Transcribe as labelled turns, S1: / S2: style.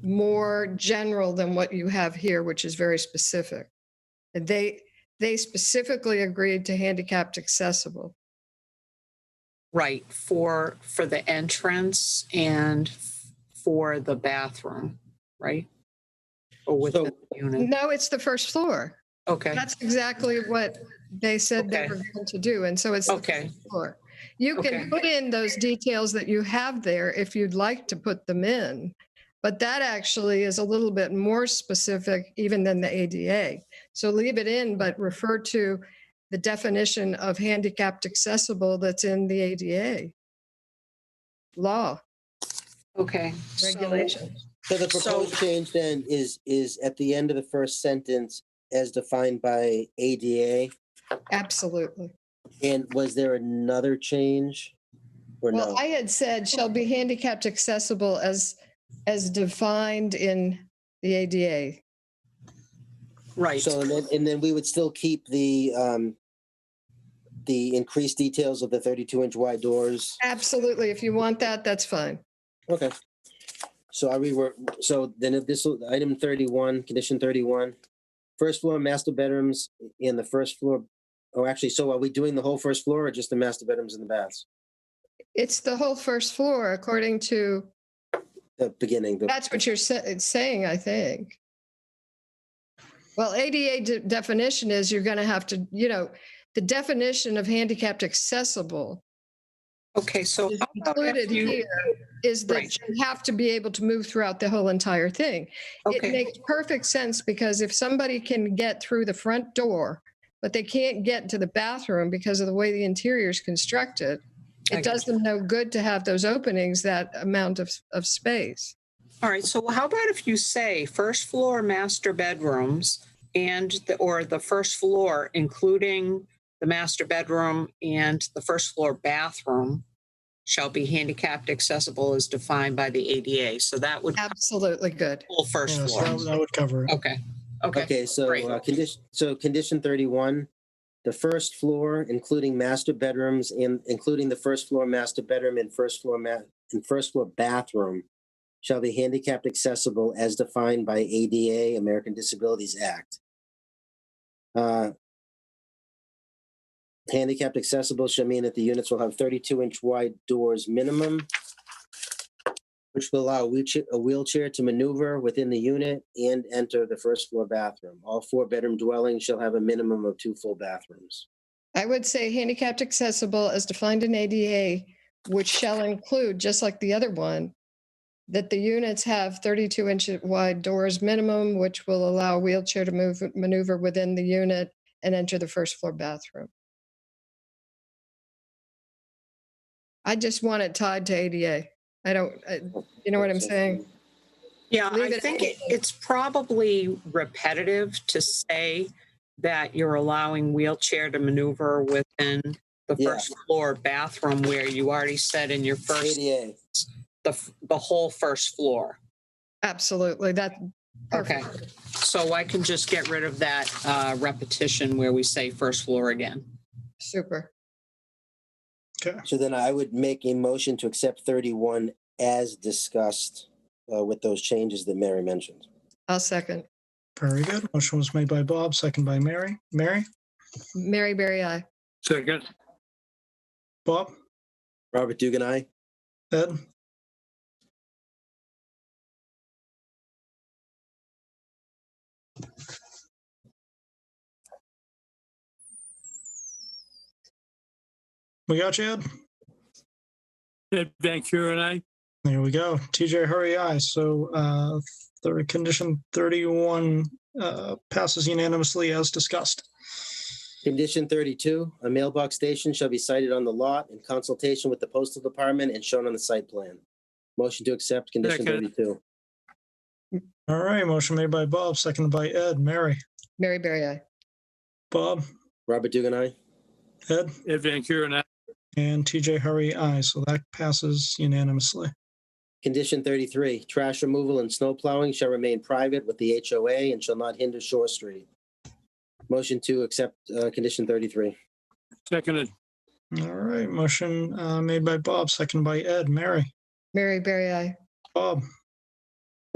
S1: more general than what you have here, which is very specific. And They, they specifically agreed to handicapped accessible.
S2: Right, for, for the entrance and f- for the bathroom, right? Or within
S3: So-
S2: the unit,
S1: No, it's the first floor.
S2: okay,
S1: Mm-hmm. That's exactly what they said they
S2: Okay.
S1: were going to do. And so it's the
S2: okay,
S1: floor. You
S2: Okay.
S1: can put in those details that you have there if you'd like to put them in. But that actually is a little bit more specific even than the ADA. So leave it in, but refer to the definition of handicapped accessible that's in the ADA law
S2: okay. So-
S1: regulation.
S3: So the proposed change then is, is at the end of the first sentence as defined by ADA?
S1: Absolutely.
S3: And was there another change? Or no?
S1: Well, I had said shall be handicapped accessible as, as defined in the ADA.
S2: Right,
S3: So, and then, and then we would still keep the, um, the increased details of the thirty-two inch wide doors.
S1: Absolutely. If you want that, that's fine.
S3: Okay. So I rework, so then if this, item thirty-one, condition thirty-one, first floor master bedrooms in the first floor, oh, actually, so are we doing the whole first floor or just the master bedrooms and the baths?
S1: It's the whole first floor, according to,
S3: The beginning, the-
S1: that's what you're sa- saying, I think. Well, ADA de- definition is you're going to have to, you know, the definition of handicapped accessible
S2: okay, so.
S1: is
S2: how about if
S1: included
S2: you-
S1: here is that
S2: Oh, Right.
S1: you have to be able to move throughout the whole entire thing. It
S2: Okay,
S1: makes perfect sense because if somebody can get through the front door, but they can't get to the bathroom because of the way the interior is constructed,
S2: I
S1: it
S2: got
S1: does them no good to have those openings, that amount of, of space.
S2: all right, so how about if you say first floor master bedrooms and, the or the first floor, including the master bedroom and the first floor bathroom shall be handicapped accessible as defined by the ADA, so that would
S1: Absolutely good.
S2: full first
S4: Yes,
S2: floor.
S4: that would- that would cover it.
S2: Okay, okay,
S3: okay, so,
S2: great.
S3: uh, condition, so condition thirty-one, the first floor, including master bedrooms and including the first floor master bedroom and first floor ma, and first floor bathroom shall be handicapped accessible as defined by ADA, American Disabilities Act. Uh, Handicapped accessible shall mean that the units will have thirty-two inch wide doors minimum, which will allow a wheelchair- a wheelchair to maneuver within the unit and enter the first floor bathroom. All four-bedroom dwellings shall have a minimum of two full bathrooms.
S1: I would say handicapped accessible as defined in ADA, which shall include, just like the other one, that the units have 32 inch wide doors minimum, which will allow a wheelchair to move, maneuver within the unit and enter the first floor bathroom. I just want it tied to ADA. I don't, I- you know what I'm saying?
S2: Yeah,
S1: Leave
S2: I
S1: it
S2: think
S1: at-
S2: it- it's probably repetitive to say that you're allowing wheelchair to maneuver within the
S3: Yeah.
S2: first floor bathroom where you already said in your first,
S3: ADA,
S2: the, f- the whole first floor.
S1: Absolutely. That,
S2: Okay.
S1: perfect.
S2: So I can just get rid of that uh, repetition where we say first floor again.
S1: Super.
S4: Okay.
S3: so then I would make a motion to accept thirty-one as discussed uh, with those changes that Mary mentioned.
S1: I'll second.
S4: Very good. Motion was made by Bob, second by Mary. Mary,
S1: Mary Berry, I.
S5: Second,
S4: Bob,
S3: Robert Dugan, aye?
S4: Ed, we got you, Ed.
S5: Ed Van Kuren, aye.
S4: There we go. TJ, hurry, aye. So uh, the condition 31 uh, passes unanimously as discussed.
S3: Condition thirty-two, a mailbox station shall be sited on the lot in consultation with the postal department and shown on the site plan. Motion to accept condition
S5: Second.
S3: thirty-two.
S4: All right. Motion made by Bob, seconded by Ed. Mary,
S1: Mary Berry, I.
S4: Bob,
S3: Robert Dugan, aye?
S4: Ed,
S5: Ed Van Kuren, aye.
S4: and TJ, hurry, aye. So that passes unanimously.
S3: Condition thirty-three, trash removal and snow plowing shall remain private with the HOA and shall not hinder Shore Street. Motion to accept, uh, condition thirty-three.
S5: Seconded,
S4: All right, motion uh, made by Bob, second by Ed. Mary,
S1: Mary Berry, I.
S4: Bob,